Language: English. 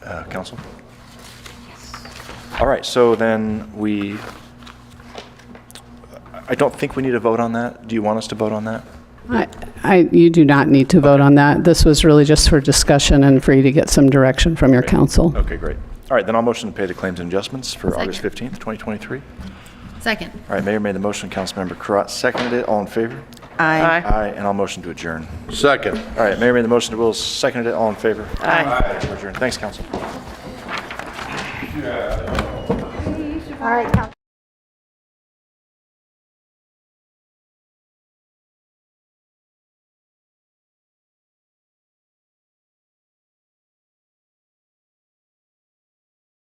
uh, council? All right, so then we, I don't think we need to vote on that. Do you want us to vote on that? I- I, you do not need to vote on that. This was really just for discussion and for you to get some direction from your council. Okay, great. All right, then I'll motion to pay the claims and adjustments for August Second. 15th, 2023. All Second. right, Mayor made the motion, Councilmember Karat seconded it. All in favor? Aye. Aye, and I'll motion to adjourn. Second. All right, Mayor made the motion, Will seconded it. All in favor? Aye. We're adjourned. Thanks, council.